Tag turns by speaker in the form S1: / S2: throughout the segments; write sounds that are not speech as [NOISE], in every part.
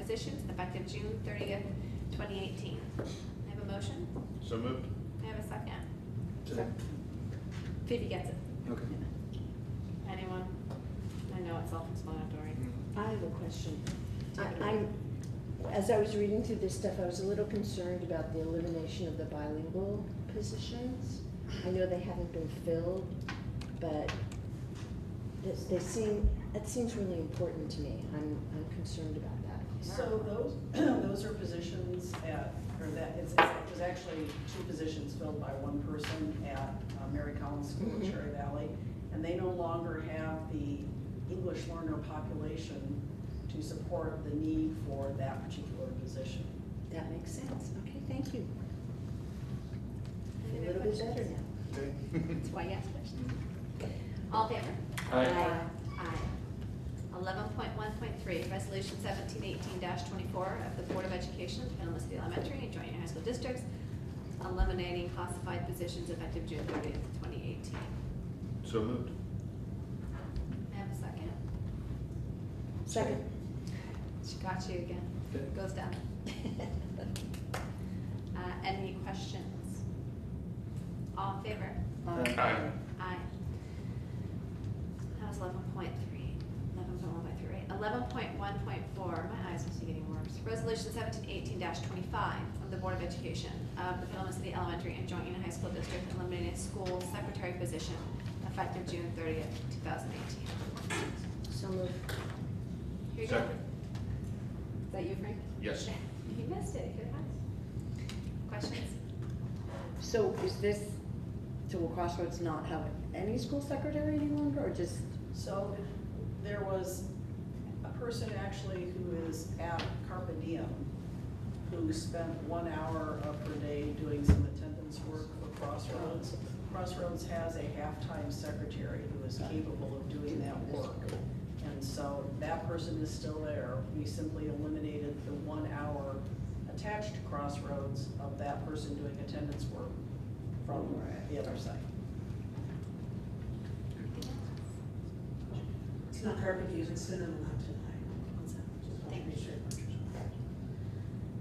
S1: positions effective June thirtieth, twenty eighteen. I have a motion,
S2: So moved.
S1: I have a second.
S3: Second.
S1: Phoebe gets it.
S3: Okay.
S1: Anyone? I know it's self-explanatory.
S3: Mm-hmm.
S4: I have a question.
S1: Take it
S4: I- I'm, as I was reading through this stuff, I was a little concerned about the elimination of the bilingual positions. I know they haven't been filled, but they- they seem, that seems really important to me. I'm, I'm concerned about that.
S5: So those, [CLEARS THROAT] those are positions at, or that, it's, it was actually two positions filled by one person at uh, Mary Collins School in
S4: Mhm.
S5: Cherry Valley. And they no longer have the English learner population to support the need for that particular position.
S4: That makes sense. Okay, thank you.
S1: Any
S4: A
S1: other
S4: little bit
S1: questions?
S4: better now.
S2: Okay.
S1: That's why you asked questions. All in favor?
S3: Aye.
S4: Aye.
S1: Eleven point one point three, resolution seventeen eighteen twenty-four of the Board of Education of Petaluma City Elementary and Joint High School Districts eliminating classified positions effective June thirtieth, twenty eighteen.
S2: So moved.
S1: I have a second.
S4: Second.
S1: She got you again.
S3: Okay.
S1: Goes down. Uh, any questions? All in favor?
S2: Aye.
S1: Aye. That was eleven point three. Eleven point one point three. Eleven point one point four, my eyes must be getting worse. Resolution seventeen eighteen twenty-five of the Board of Education of the Petaluma City Elementary and Joint Union High School District eliminating school secretary position effective June thirtieth, two thousand eighteen.
S4: So moved.
S1: Here you go.
S2: Second.
S1: Is that you, Frank?
S2: Yes.
S1: [LAUGHS] You missed it. Good one. Questions?
S6: So is this, so will Crossroads not have any school secretary any longer, or just,
S5: So there was a person actually who is at Carpe Diem, who spent one hour of her day doing some attendance work for Crossroads. Crossroads has a half-time secretary who is capable of doing that work. And so that person is still there. We simply eliminated the one hour attached to Crossroads of that person doing attendance work from the other side.
S7: It's not Carpe Diem, it's Cinnamon Mountain High. What's that? Just want to make sure.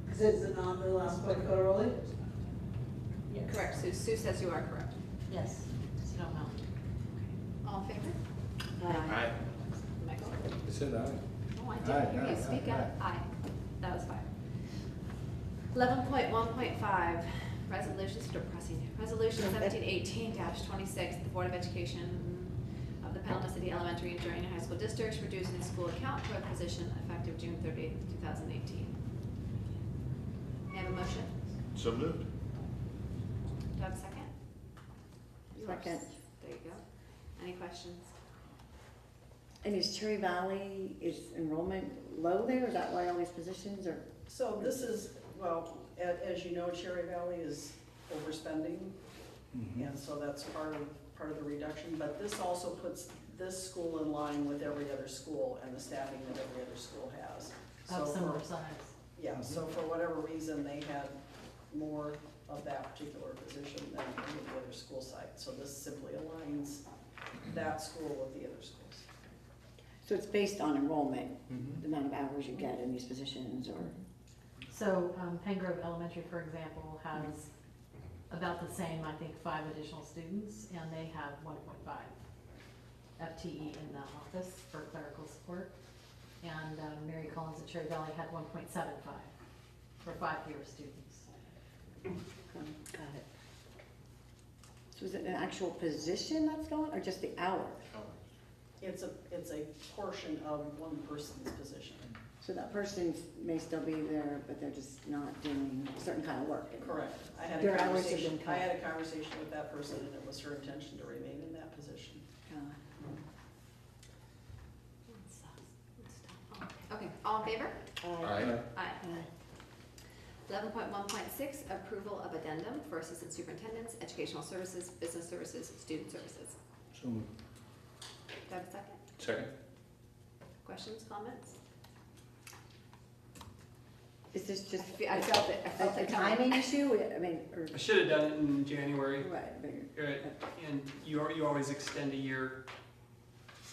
S7: Because it's the non, the last point, Dakota Rowley?
S1: Correct, Sue. Sue says you are correct.
S7: Yes, Snow Mountain.
S1: All in favor?
S2: Aye.
S1: Michael?
S3: I said aye.
S1: Oh, I
S3: Aye,
S1: didn't,
S3: aye,
S1: you speak
S3: aye,
S1: up, aye, that was five. Eleven point one point five, resolutions, depressing, resolution
S3: [LAUGHS]
S1: seventeen eighteen twenty-six, the Board of Education of the Petaluma City Elementary and Junior High School Districts reducing the school account clerk position effective June thirtieth, two thousand eighteen. May I have a motion?
S2: So moved.
S1: Do I have a second? Yours.
S6: Second.
S1: There you go. Any questions?
S6: and is Cherry Valley, is enrollment low there, is that why all these positions are?
S5: So this is, well, a- as you know, Cherry Valley is overspending, and so that's part of, part of the reduction. But this also puts this school in line with every other school and the staffing that every other school has. So
S7: Of similar
S5: for,
S7: size.
S5: yeah, so for whatever reason, they had more of that particular position than any of the other school sites. So this simply aligns that school with the other schools.
S6: So it's based on enrollment, the amount of hours you get in these positions, or,
S8: So um, Pen Grove Elementary, for example, has about the same, I think, five additional students, and they have one point five FTE in the office for clerical support. And um, Mary Collins at Cherry Valley had one point seven five for five fewer students.
S6: um, got it. So is it an actual position that's gone, or just the hour?
S5: It's a, it's a portion of one person's position.
S6: So that person may still be there, but they're just not doing a certain kind of work.
S5: Correct. I had a
S6: Their hours have
S5: conversation,
S6: been cut.
S5: I had a conversation with that person and it was her intention to remain in that position.
S6: Uh,
S1: uh, Okay, all in favor?
S2: Aye.
S1: Aye.
S6: Aye.
S1: Eleven point one point six, approval of addendum for assistant superintendents, educational services, business services, student services.
S3: So moved.
S1: Do I have a second?
S2: Second.
S1: Questions, comments?
S6: Is this just?
S1: I fe- I felt it, I
S6: A
S1: felt
S6: a
S1: it
S6: timing
S1: coming.
S6: issue, I mean, or,
S9: I should have done it in January,
S6: right, but-
S9: uh, and you, al- you always extend a year,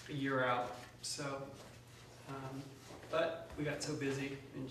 S9: a year out, so. um, But we got so busy in